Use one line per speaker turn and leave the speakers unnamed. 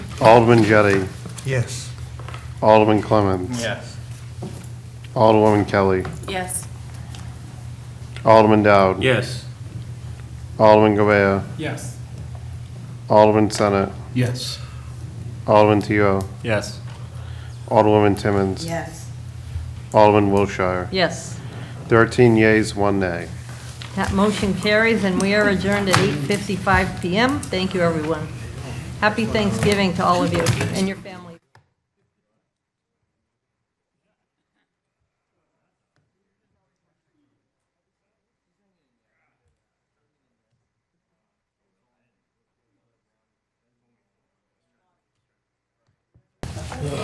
Alderman Jettie,
Yes.
Alderman Clemmons.
Yes.
Alderwoman Kelly,
Yes.
Alderman Dowd.
Yes.
Alderman Govea,
Yes.
Alderman Senate,
Yes.
Alderman Tio,
Yes.
Alderwoman Timmons.
Yes.
Alderman Wilshire.
Yes.
13 yeas, one nay.
That motion carries, and we are adjourned at 8:55 PM. Thank you, everyone. Happy Thanksgiving to all of you and your families.